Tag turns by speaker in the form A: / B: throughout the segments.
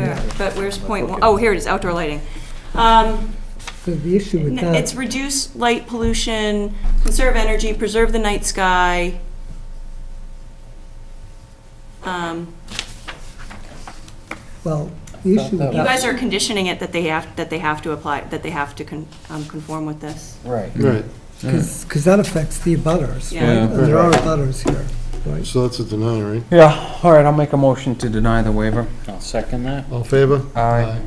A: but where's point one? Oh, here it is, outdoor lighting. Um,
B: Because the issue with
A: n- It's
B: that,
A: reduce light pollution, conserve energy, preserve the night sky. Um,
B: well, the issue with
A: You
B: that,
A: guys are conditioning it that they have, that they have to apply, that they have to con- um, conform with this.
C: Right.
D: Right,
B: because that affects the abutters, right?
A: Yeah. Yeah,
B: And There are
D: right.
B: abutters here, right?
D: so that's a deny, right?
C: Yeah, all right, I'll make a motion to deny the waiver.
E: I'll second that.
D: All in favor?
C: Aye.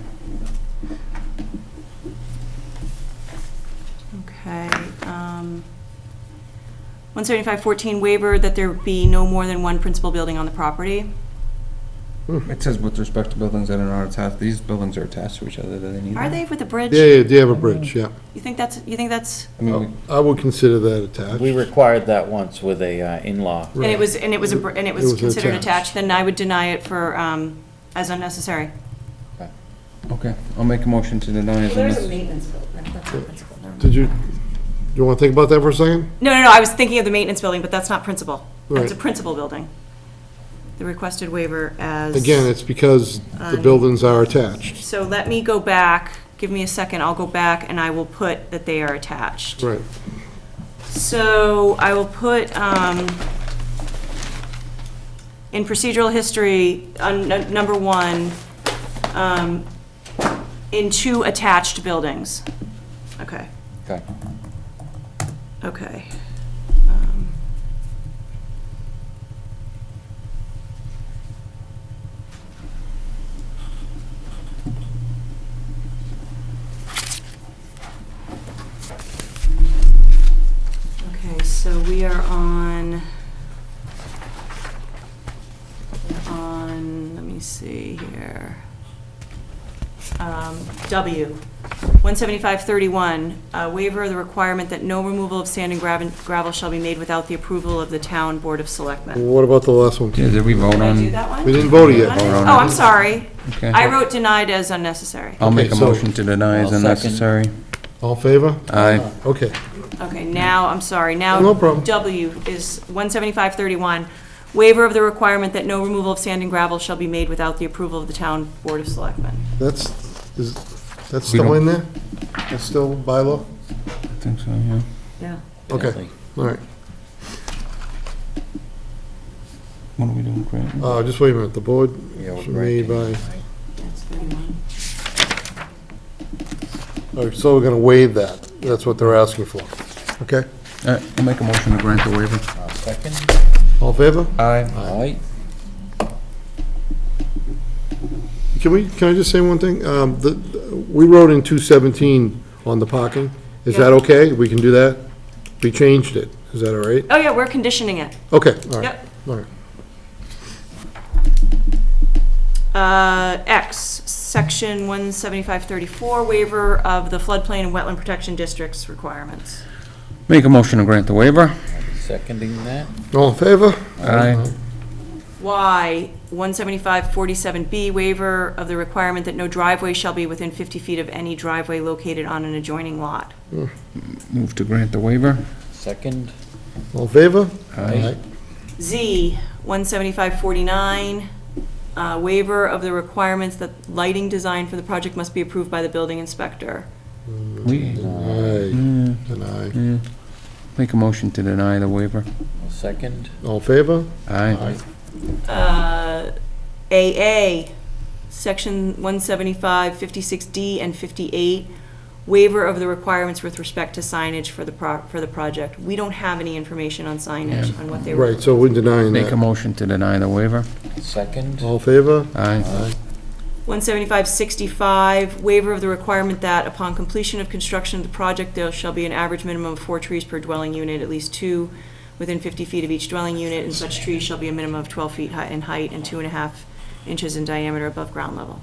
A: Okay. um, 175-14 waiver that there be no more than one principal building on the property.
C: It says with respect to buildings that are not attached, these buildings are attached to each other, do they need
A: Are
C: that?
A: they with the bridge?
D: Yeah, yeah, do you have a bridge, yeah.
A: You think that's, you think that's,
C: I mean, we-
D: I would consider that attached.
E: We required that once with a uh, in-law.
A: and it was, and it was, a br- and it was
D: It was
A: considered
D: attached.
A: attached, then I would deny it for, um, as unnecessary.
C: okay, I'll make a motion to deny as unnecessary.
A: maintenance building, that's not principal,
D: Did you, you want to think about that for a second?
A: No, no, no, I was thinking of the maintenance building, but that's not principal. It's a
D: Right.
A: principal building. The requested waiver as.
D: Again, it's because the buildings are attached.
A: So let me go back, give me a second, I'll go back and I will put that they are attached.
D: Right,
A: So I will put, um, in procedural history, on n- number one, um, in two attached buildings. Okay,
C: Okay.
A: okay. Um, Okay, so we are on, we're on, let me see here. Um, W, 17531, uh, waiver of the requirement that no removal of sand and gravel gravel shall be made without the approval of the town Board of
D: Well,
A: Selectmen.
D: what about the last one?
C: Yeah, did Um, we vote
A: Did I
C: on?
A: do that one?
D: We didn't vote it
A: What is-
D: yet.
C: Vote on
A: Oh,
C: it.
A: I'm sorry.
C: Okay. Oh,
A: I wrote denied as unnecessary.
C: I'll make a
D: Okay, so-
C: motion to deny as
E: I'll second.
C: unnecessary.
D: All in favor?
C: Aye.
D: Okay,
A: Okay, now, I'm sorry, now.
D: No problem.
A: W is 17531, waiver of the requirement that no removal of sand and gravel shall be made without the approval of the town Board of Selectmen.
D: that's, is, that's
C: We
D: still
C: don't-
D: in there? That's still bylaw?
C: I think so, yeah.
A: Yeah.
D: Okay, all right.
C: What are we doing, Grant?
D: Uh, just wait a minute, the board
C: Yeah, we're
D: should made by,
C: granting.
A: That's 31.
D: all right, so we're going to waive that. That's what they're asking for, okay?
C: All right, I'll make a motion to grant the waiver.
E: I'll second.
D: All in favor?
C: Aye.
E: All right.
D: Can we, can I just say one thing? Um, the, we wrote in two seventeen on the parking. Is that
A: Yeah.
D: okay? We can do that? We changed it. Is that all right?
A: Oh, yeah, we're conditioning it.
D: Okay, all right,
A: Yep.
D: all right.
A: Uh, X, section 17534, waiver of the floodplain and wetland protection districts requirements.
C: Make a motion to grant the waiver.
E: I'll be seconding that.
D: All in favor?
C: Aye.
A: Y, 17547B, waiver of the requirement that no driveway shall be within 50 feet of any driveway located on an adjoining lot.
C: Move to grant the waiver.
E: Second.
D: All in favor?
C: Aye.
A: Z, 17549, uh, waiver of the requirements that lighting design for the project must be approved by the building inspector.
C: We,
D: Aye,
C: yeah,
D: and aye.
C: yeah. Make a motion to deny the waiver.
E: I'll second.
D: All in favor?
C: Aye.
A: Uh, AA, Section 175, 56D, and 58, waiver of the requirements with respect to signage for the, pro- for the project. We don't have any information on signage,
C: Yeah.
A: on what they were.
D: Right, so we're denying
C: Make a
D: that.
C: motion to deny the waiver.
E: Second.
D: All in favor?
C: Aye.
A: 175-65, waiver of the requirement that upon completion of construction of the project, there shall be an average minimum of four trees per dwelling unit, at least two within 50 feet of each dwelling unit, and such trees shall be a minimum of 12 feet hi- in height and two and a half inches in diameter above ground level.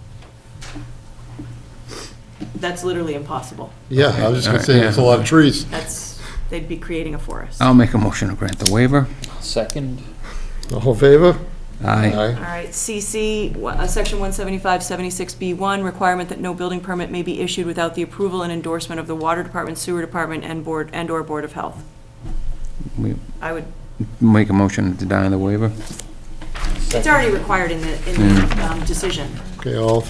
A: That's literally impossible.
D: Yeah, I was just gonna say,
C: Yeah.
D: there's a lot of trees.
A: That's, they'd be creating a forest. All
C: I'll make a motion to grant the waiver.
E: Second.
D: All in favor?
C: Aye.
A: right, CC, wha- uh, Section 175-76B1, requirement that no building permit may be issued without the approval and endorsement of the Water Department, Sewer Department, and Board, and/or Board of Health.
C: We-
A: I would,
C: Make a motion to deny the waiver.
A: it's already required in the, in the um, decision.
D: Okay, all in